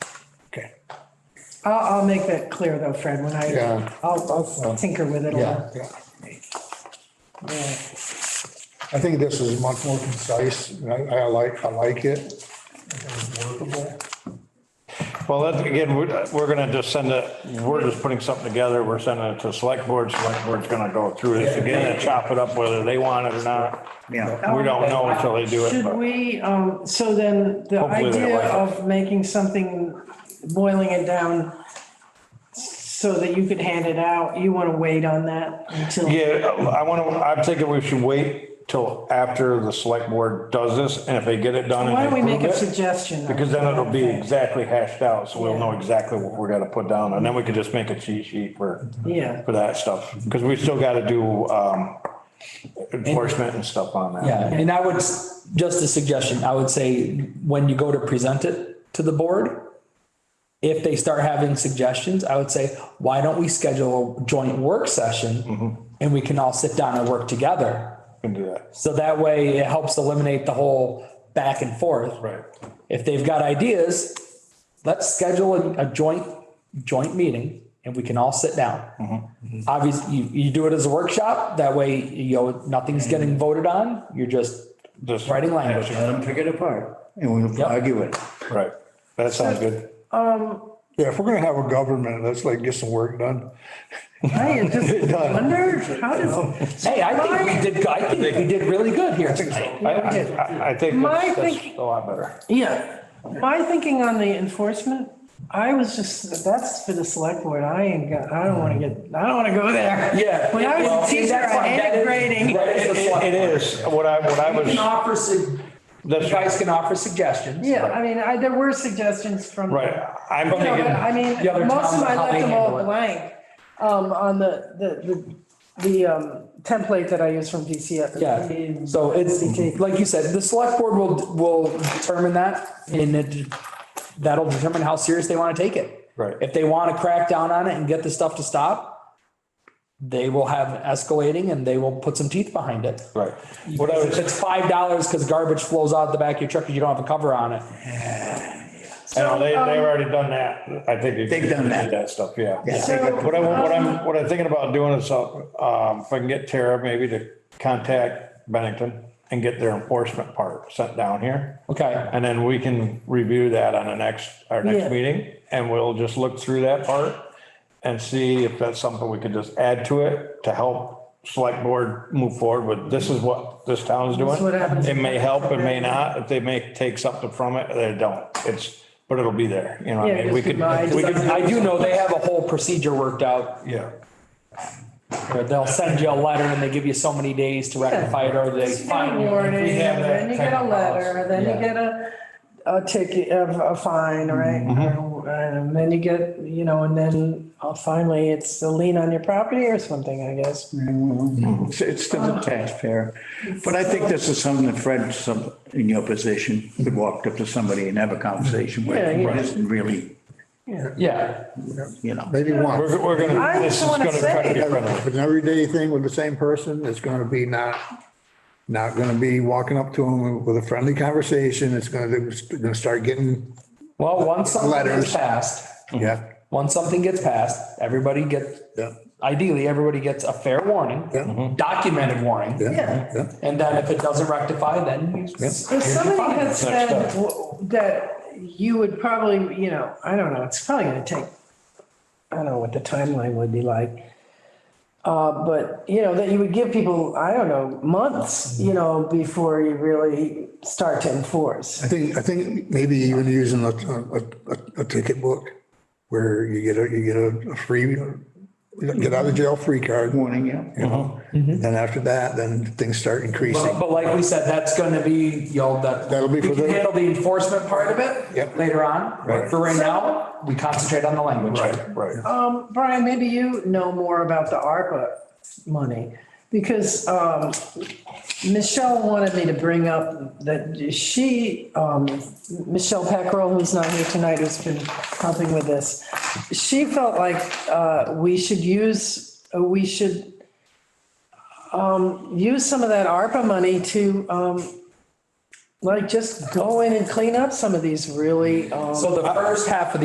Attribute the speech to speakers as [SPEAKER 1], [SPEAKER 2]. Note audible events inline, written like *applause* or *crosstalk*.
[SPEAKER 1] Okay,
[SPEAKER 2] I'll, I'll make that clear though, Fred, when I,
[SPEAKER 1] Yeah.
[SPEAKER 2] I'll, I'll tinker with it a
[SPEAKER 1] yeah,
[SPEAKER 2] little.
[SPEAKER 1] yeah.
[SPEAKER 2] Yeah.
[SPEAKER 1] I think this is much more concise, and I, I like, I like it. It's workable.
[SPEAKER 3] Well, that, again, we're, we're gonna just send it, we're just putting something together, we're sending it to select board, select board's gonna go through this again and chop it up whether they want it or not.
[SPEAKER 4] Yeah.
[SPEAKER 3] We don't know until they do it,
[SPEAKER 2] Should
[SPEAKER 3] but
[SPEAKER 2] we, um, so then the
[SPEAKER 3] Hopefully they
[SPEAKER 2] idea
[SPEAKER 3] like it.
[SPEAKER 2] of making something, boiling it down so that you could hand it out, you want to wait on that until?
[SPEAKER 3] yeah, I wanna, I'm thinking we should wait till after the select board does this and if they get it done
[SPEAKER 2] Why
[SPEAKER 3] and
[SPEAKER 2] don't we make a
[SPEAKER 3] approve it,
[SPEAKER 2] suggestion?
[SPEAKER 3] Because then it'll be exactly hashed out, so we'll
[SPEAKER 2] Yeah.
[SPEAKER 3] know exactly what we're gonna put down and then we can just make a cheat sheet for,
[SPEAKER 2] Yeah,
[SPEAKER 3] for that stuff. Cause we still gotta do, um, enforcement and stuff on that.
[SPEAKER 4] Yeah, and I would, s- just a suggestion, I would say, when you go to present it to the board, if they start having suggestions, I would say, why don't we schedule a joint work session? And we can all sit down and work together.
[SPEAKER 3] Can do that.
[SPEAKER 4] So that way it helps eliminate the whole back and forth.
[SPEAKER 3] Right.
[SPEAKER 4] If they've got ideas, let's schedule a, a joint, joint meeting and we can all sit
[SPEAKER 3] Mm-hmm.
[SPEAKER 4] down. Obviously, you, you do it as a workshop, that way, you know, nothing's getting
[SPEAKER 3] Mm-hmm.
[SPEAKER 4] voted on, you're just
[SPEAKER 3] Just-
[SPEAKER 4] writing language.
[SPEAKER 5] Let them pick it apart and we'll
[SPEAKER 4] Yep.
[SPEAKER 5] argue it.
[SPEAKER 3] Right, that sounds good.
[SPEAKER 1] Yeah, if we're gonna have a government, let's like get some work done.
[SPEAKER 2] I
[SPEAKER 3] *laughs*
[SPEAKER 2] just wondered, how does,
[SPEAKER 4] Hey, I think we did, I think we did really good here.
[SPEAKER 3] *laughs* I, I, I think
[SPEAKER 2] My
[SPEAKER 3] that's, that's
[SPEAKER 2] thinking-
[SPEAKER 3] a lot better.
[SPEAKER 2] yeah, my thinking on the enforcement, I was just, that's for the select board, I ain't got, I don't want to get, I don't want to go there.
[SPEAKER 4] Yeah.
[SPEAKER 2] When I
[SPEAKER 4] well,
[SPEAKER 2] was a teacher,
[SPEAKER 4] that's
[SPEAKER 2] I
[SPEAKER 4] why- that
[SPEAKER 2] hated
[SPEAKER 4] is-
[SPEAKER 2] grading.
[SPEAKER 4] right,
[SPEAKER 3] It,
[SPEAKER 4] it's a slot.
[SPEAKER 3] it- it is, what I, what I
[SPEAKER 4] You can
[SPEAKER 3] was,
[SPEAKER 4] offer, su- you
[SPEAKER 3] that's,
[SPEAKER 4] guys can offer suggestions.
[SPEAKER 2] Yeah, I mean, I, there were suggestions from.
[SPEAKER 3] right, I'm
[SPEAKER 2] No, but I
[SPEAKER 3] thinking,
[SPEAKER 4] The other
[SPEAKER 2] mean, most of
[SPEAKER 4] towns,
[SPEAKER 2] them, I
[SPEAKER 4] how
[SPEAKER 2] left
[SPEAKER 4] they
[SPEAKER 2] them all
[SPEAKER 4] handle it.
[SPEAKER 2] blank, um, on the, the, the, the, um, template that I use from DCF.
[SPEAKER 4] Yeah, so it's, like you said, the select board will, will determine that and it, that'll determine how serious they want to take it.
[SPEAKER 3] Right.
[SPEAKER 4] If they want to crack down on it and get the stuff to stop, they will have escalating and they will put some teeth behind it.
[SPEAKER 3] right, what I
[SPEAKER 4] If
[SPEAKER 3] was,
[SPEAKER 4] it's five dollars because garbage flows out the back of your truck because you don't have a cover on it.
[SPEAKER 3] you know, they, they've already done that, I think.
[SPEAKER 5] They've done
[SPEAKER 3] they
[SPEAKER 5] that.
[SPEAKER 3] did That stuff, yeah.
[SPEAKER 2] So,
[SPEAKER 3] What I, what I'm, what I'm thinking about doing is, uh, um, if I can get Tara maybe to contact Bennington and get their enforcement part sent down here.
[SPEAKER 4] Okay,
[SPEAKER 3] And then we can review that on the next, our
[SPEAKER 2] Yeah.
[SPEAKER 3] next meeting, and we'll just look through that part and see if that's something we could just add to it to help select board move forward with, this is what this town's doing.
[SPEAKER 2] what happens.
[SPEAKER 3] It may help, it may not, if they may take something from it, they don't, it's, but it'll be there, you know, what
[SPEAKER 2] Yeah,
[SPEAKER 3] I mean,
[SPEAKER 2] just
[SPEAKER 3] we could,
[SPEAKER 2] remind-
[SPEAKER 3] we could,
[SPEAKER 4] I do know they have a whole procedure worked out
[SPEAKER 3] yeah.
[SPEAKER 4] where they'll send you a letter and they give you so many days to rectify it or they
[SPEAKER 2] You get a
[SPEAKER 4] fine you.
[SPEAKER 2] warning,
[SPEAKER 3] we have that
[SPEAKER 2] then you get
[SPEAKER 3] type
[SPEAKER 2] a
[SPEAKER 3] of
[SPEAKER 2] letter,
[SPEAKER 3] policy.
[SPEAKER 2] then you
[SPEAKER 4] Yeah.
[SPEAKER 2] get a, a ticket, a, a fine,
[SPEAKER 3] Mm-hmm.
[SPEAKER 2] right? Or, And then you get, you know, and then uh, finally it's a lien on your property or something, I guess.
[SPEAKER 5] It's it's to the taxpayer. But I think this is something that Fred, some, in your position, could walk up to somebody and have a conversation with.
[SPEAKER 2] Yeah, yeah.
[SPEAKER 5] It isn't really,
[SPEAKER 4] Yeah,
[SPEAKER 5] you know.
[SPEAKER 1] Maybe one,
[SPEAKER 3] We're, we're gonna,
[SPEAKER 2] I
[SPEAKER 3] this
[SPEAKER 2] just
[SPEAKER 3] is
[SPEAKER 2] wanna
[SPEAKER 3] gonna try to
[SPEAKER 2] say-
[SPEAKER 3] be friendly.
[SPEAKER 1] If it's an everyday thing with the same person, it's gonna be not, not gonna be walking up to them with a friendly conversation, it's gonna, it's gonna start getting,
[SPEAKER 4] well, once something gets
[SPEAKER 1] Letters.
[SPEAKER 4] passed,
[SPEAKER 1] yeah,
[SPEAKER 4] once something gets passed, everybody gets,
[SPEAKER 1] yeah,
[SPEAKER 4] ideally, everybody gets a fair
[SPEAKER 1] Yeah.
[SPEAKER 4] warning,
[SPEAKER 1] Mhm.
[SPEAKER 4] documented warning.
[SPEAKER 1] yeah, yeah.
[SPEAKER 4] And then if it doesn't rectify, then you s-
[SPEAKER 2] If somebody had said
[SPEAKER 3] Next
[SPEAKER 2] w- that you would probably, you know, I don't know, it's probably gonna take, I don't know what the timeline would be like. Uh, but, you know, that you would give people, I don't know, months,
[SPEAKER 3] Mm-hmm.
[SPEAKER 2] you know, before you really start to enforce.
[SPEAKER 1] I think, I think maybe even using a, a, a- a ticket book where you get a, you get a free, get out of jail free card.
[SPEAKER 5] Warning, yeah.
[SPEAKER 1] you know? Then after that, then things start
[SPEAKER 4] But
[SPEAKER 1] increasing.
[SPEAKER 4] but like we said, that's gonna be, you know, that.
[SPEAKER 1] That'll be
[SPEAKER 4] we
[SPEAKER 1] for
[SPEAKER 4] can
[SPEAKER 1] the-
[SPEAKER 4] Handle the enforcement part of it.
[SPEAKER 1] Yep.
[SPEAKER 4] Later on,
[SPEAKER 1] Right.
[SPEAKER 4] for right now, we concentrate on the language.
[SPEAKER 3] Right, right.
[SPEAKER 2] Um, Brian, maybe you know more about the ARPA money, because, um, Michelle wanted me to bring up that she, um, Michelle Peckrell, who's not here tonight, who's been helping with this. She felt like, uh, we should use, uh, we should, um, use some of that ARPA money to, um, like, just go in and clean up some of these really, um.
[SPEAKER 4] So the first half of the